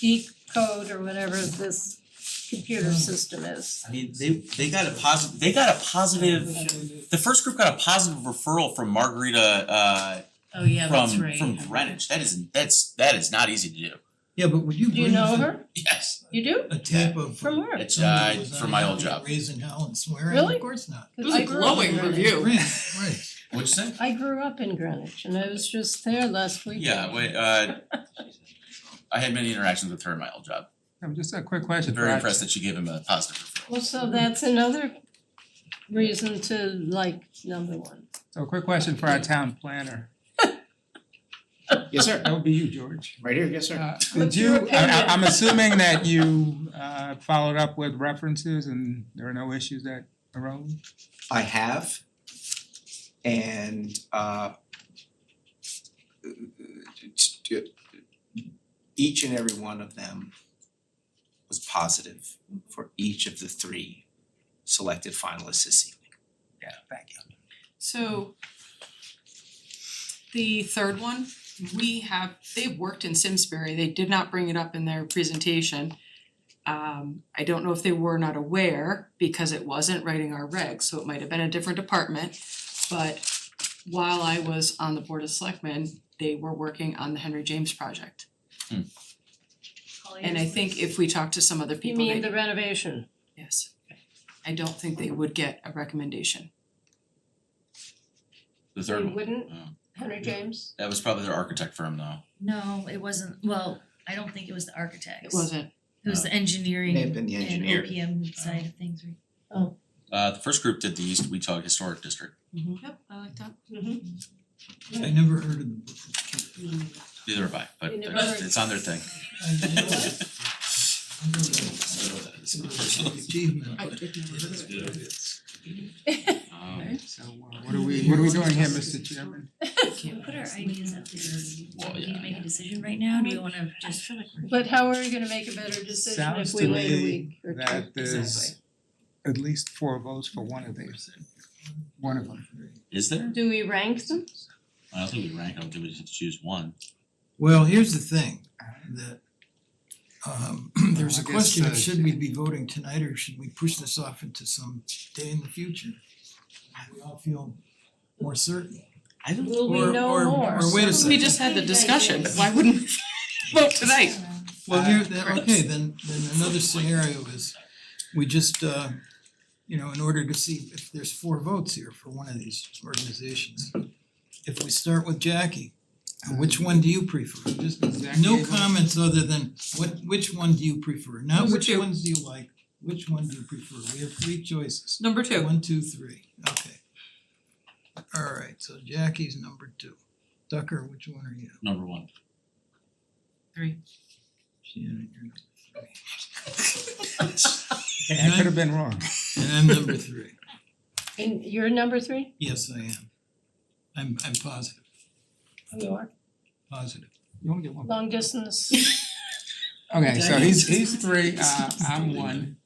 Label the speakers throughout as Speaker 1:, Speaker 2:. Speaker 1: decode or whatever this computer system is.
Speaker 2: I mean, they they got a positive, they got a positive, the first group got a positive referral from Margarita uh
Speaker 3: Oh, yeah, that's
Speaker 2: from
Speaker 3: right.
Speaker 2: from Greenwich. That isn't that's that is not easy to do.
Speaker 4: Yeah, but would you
Speaker 1: Do you
Speaker 4: believe
Speaker 1: know
Speaker 4: that
Speaker 1: her?
Speaker 2: Yes.
Speaker 1: You do?
Speaker 4: a tape of
Speaker 1: From where?
Speaker 2: It's
Speaker 4: somebody
Speaker 2: uh
Speaker 4: was
Speaker 2: from
Speaker 4: on
Speaker 2: my
Speaker 4: there
Speaker 2: old job.
Speaker 4: Raising hell and swearing,
Speaker 1: Really?
Speaker 4: of course not.
Speaker 3: It was a
Speaker 1: I grew up
Speaker 3: glowing
Speaker 1: in Greenwich.
Speaker 3: review.
Speaker 4: Right, right.
Speaker 2: What'd you say?
Speaker 1: I grew up in Greenwich and I was just there last weekend.
Speaker 2: Yeah, wait, uh I had many interactions with her in my old job.
Speaker 5: Um, just a quick question.
Speaker 2: Very
Speaker 5: for
Speaker 2: impressed
Speaker 5: action.
Speaker 2: that she gave him a positive referral.
Speaker 1: Well, so that's another reason to like number one.
Speaker 5: So a quick question for our town planner.
Speaker 6: Yes, sir.
Speaker 5: That would be you, George.
Speaker 6: Right here, yes, sir.
Speaker 5: Uh, did
Speaker 1: What's your
Speaker 5: you, I I- I'm
Speaker 1: opinion?
Speaker 5: assuming that you uh followed up with references and there are no issues that arose?
Speaker 6: I have. And uh each and every one of them was positive for each of the three selected finalists this evening.
Speaker 5: Yeah, thank you.
Speaker 3: So the third one, we have, they've worked in Simsbury, they did not bring it up in their presentation. Um I don't know if they were not aware because it wasn't writing our regs, so it might have been a different department. But while I was on the Board of Selectmen, they were working on the Henry James project. And I think if we talk to some other
Speaker 1: You
Speaker 3: people,
Speaker 1: mean
Speaker 3: they,
Speaker 1: the renovation?
Speaker 3: yes. I don't think they would get a recommendation.
Speaker 2: The
Speaker 1: You
Speaker 2: third one.
Speaker 1: wouldn't,
Speaker 2: Oh.
Speaker 1: Henry James?
Speaker 2: That was probably their architect firm though.
Speaker 7: No, it wasn't, well, I don't think it was the
Speaker 3: It
Speaker 7: architects.
Speaker 3: wasn't,
Speaker 7: It was the engineering
Speaker 6: May have been
Speaker 7: and
Speaker 6: the engineer.
Speaker 7: OPM side of things, right?
Speaker 2: Uh the first group did the East Weetog Historic District.
Speaker 3: yep, I like that.
Speaker 1: Mm-hmm.
Speaker 4: I never heard of them before.
Speaker 2: Neither have I, but
Speaker 1: You never
Speaker 2: they're-
Speaker 1: heard.
Speaker 2: it's on their thing.
Speaker 4: I know it. I know
Speaker 2: I
Speaker 4: that
Speaker 2: don't know what that
Speaker 4: it's
Speaker 2: is.
Speaker 4: an achievement,
Speaker 3: I
Speaker 4: but
Speaker 3: did know
Speaker 2: Um,
Speaker 5: So uh, what are we, what are we doing here, Mr. Chairman?
Speaker 3: Can't-
Speaker 7: Put our ideas out there,
Speaker 2: Well,
Speaker 7: do we
Speaker 2: yeah,
Speaker 7: need to make a decision right now, do we wanna just?
Speaker 1: But how are we gonna make a better decision
Speaker 5: Sounds
Speaker 1: if
Speaker 5: to
Speaker 1: we wait a
Speaker 5: me
Speaker 1: week or two?
Speaker 5: that there's at least four votes for one of these, one of them.
Speaker 2: Is there?
Speaker 1: Do we rank them?
Speaker 2: I don't think we rank them, do we just choose one?
Speaker 4: Well, here's the thing, that um there's a
Speaker 5: I guess,
Speaker 4: question
Speaker 5: uh,
Speaker 4: of should we be voting tonight or should we push this off into some day in the future? We all feel more certain.
Speaker 2: I don't
Speaker 1: Will we
Speaker 4: Or-
Speaker 1: know
Speaker 4: or-
Speaker 1: more?
Speaker 4: or wait a
Speaker 3: We
Speaker 4: second.
Speaker 3: just had the discussion, but why wouldn't we vote tonight?
Speaker 4: Well,
Speaker 5: Uh,
Speaker 4: here, then,
Speaker 3: Chris.
Speaker 4: okay, then then another scenario is we just uh you know, in order to see if there's four votes here for one of these organizations. If we start with Jackie, which one do you prefer? Just no comments other than what which one do you prefer? Not
Speaker 3: Number
Speaker 4: which
Speaker 3: two.
Speaker 4: ones do you like, which one do you prefer? We have three choices.
Speaker 3: Number two.
Speaker 4: One, two, three, okay. Alright, so Jackie's number two. Tucker, which one are you?
Speaker 2: Number one.
Speaker 4: Shannon, you're number three.
Speaker 5: I could have been wrong.
Speaker 4: And I'm number three.
Speaker 1: And you're number three?
Speaker 4: Yes, I am. I'm I'm positive,
Speaker 1: You are.
Speaker 4: positive.
Speaker 5: You only get one.
Speaker 1: Long distance,
Speaker 5: Okay, so he's he's three, uh I'm one.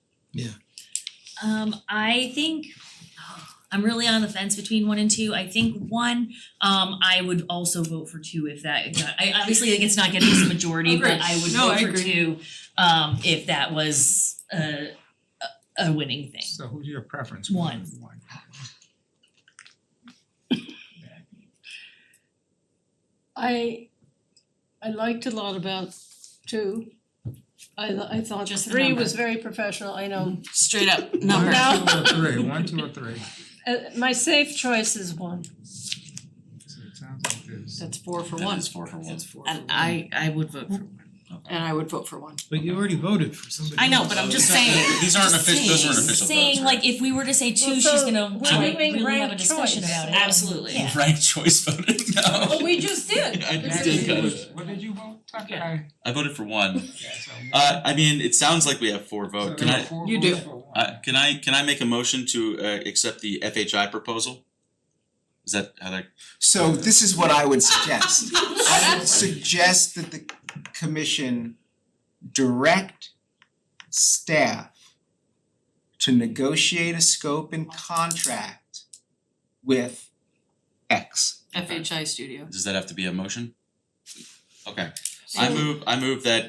Speaker 7: Um, I think, I'm really on the fence between one and two, I think one, um, I would also vote for two if that, I obviously like it's not getting the majority, but
Speaker 3: Agreed.
Speaker 7: I would
Speaker 3: No, I
Speaker 7: vote for
Speaker 3: agree.
Speaker 7: two, um, if that was a a a winning thing.
Speaker 5: So who's your preference?
Speaker 7: One.
Speaker 5: One.
Speaker 1: I I liked a lot about two. I I thought
Speaker 3: Just the
Speaker 1: three
Speaker 3: number.
Speaker 1: was very professional, I know.
Speaker 3: Straight up number.
Speaker 1: No.
Speaker 5: One, two, or three, one, two, or three.
Speaker 1: Uh my safe choice is one.
Speaker 5: So it sounds like there's.
Speaker 3: That's four for
Speaker 2: That
Speaker 3: one.
Speaker 2: is four for one.
Speaker 4: That's four.
Speaker 8: And I I would vote for one.
Speaker 3: And I would vote for one.
Speaker 4: But you already voted for somebody.
Speaker 7: I know,
Speaker 4: else.
Speaker 7: but I'm
Speaker 2: So
Speaker 7: just
Speaker 2: it's not-
Speaker 7: saying-
Speaker 2: These aren't official, those aren't
Speaker 7: Saying-
Speaker 2: official votes,
Speaker 7: Saying
Speaker 2: right?
Speaker 7: like if we were to say
Speaker 1: Well,
Speaker 7: two, she's
Speaker 1: so
Speaker 7: gonna
Speaker 1: we're
Speaker 7: like
Speaker 1: doing
Speaker 7: really have a
Speaker 1: ranked
Speaker 7: discussion
Speaker 1: choice.
Speaker 7: about it.
Speaker 8: Absolutely.
Speaker 7: Yeah.
Speaker 2: Ranked choice voting, no.
Speaker 1: Well, Oh, we just did.
Speaker 2: I
Speaker 1: It's
Speaker 2: did
Speaker 1: a-
Speaker 2: cut it.
Speaker 5: What did you vote, Tucker?
Speaker 3: Yeah.
Speaker 5: I-
Speaker 2: I voted for one.
Speaker 5: yeah, so-
Speaker 2: Uh, I mean, it sounds like we have four
Speaker 5: so
Speaker 2: votes. Can
Speaker 5: there were
Speaker 2: I,
Speaker 5: four
Speaker 3: You
Speaker 5: votes
Speaker 3: do.
Speaker 5: for one.
Speaker 2: uh, can I, can I make a motion to, uh, accept the FHI proposal? Is that how that,
Speaker 6: So this is what I would suggest. I would suggest that the commission direct staff to negotiate a scope and contract with X.
Speaker 3: FHI studio.
Speaker 2: does that have to be a motion? Okay,
Speaker 1: So-
Speaker 2: I move, I move that